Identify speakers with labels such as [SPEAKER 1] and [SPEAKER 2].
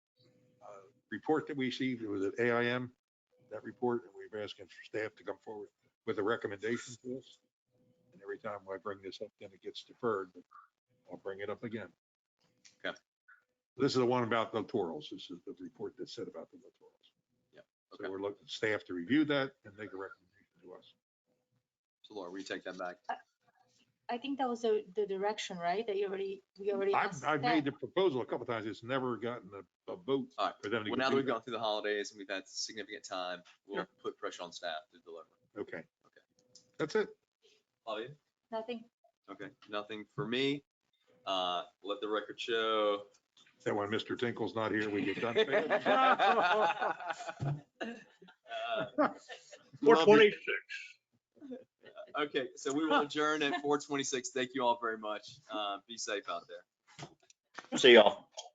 [SPEAKER 1] uh, report that we received, it was at AIM, that report, and we were asking for staff to come forward with a recommendation to us. And every time I bring this up, then it gets deferred, but I'll bring it up again.
[SPEAKER 2] Okay.
[SPEAKER 1] This is the one about the littorals. This is the report that said about the littorals.
[SPEAKER 2] Yep,
[SPEAKER 1] So
[SPEAKER 2] okay.
[SPEAKER 1] we're looking, staff to review that and make a recommendation to us.
[SPEAKER 2] So Laura, will you take that back?
[SPEAKER 3] I think that was the, the direction, right? That you already, we already.
[SPEAKER 1] I've,
[SPEAKER 3] asked
[SPEAKER 1] I've
[SPEAKER 3] them.
[SPEAKER 1] made the proposal a couple times. It's never gotten a, a vote
[SPEAKER 2] All right.
[SPEAKER 1] for them to.
[SPEAKER 2] Well,
[SPEAKER 1] go
[SPEAKER 2] now that
[SPEAKER 1] do
[SPEAKER 2] we've gone through the holidays and we've had significant time, we'll
[SPEAKER 1] Yeah.
[SPEAKER 2] put pressure on staff to deliver.
[SPEAKER 1] that. Okay. That's it.
[SPEAKER 2] Flavia?
[SPEAKER 3] Nothing.
[SPEAKER 2] Okay, nothing for me. Uh, let the record show.
[SPEAKER 1] That when Mr. Tinkle's not here, we get done. fast.
[SPEAKER 2] Uh,
[SPEAKER 4] Four
[SPEAKER 2] Love it.
[SPEAKER 4] twenty-six.
[SPEAKER 2] Okay, so we will adjourn at four twenty-six. Thank you all very much. Uh, be safe out there.
[SPEAKER 4] See y'all.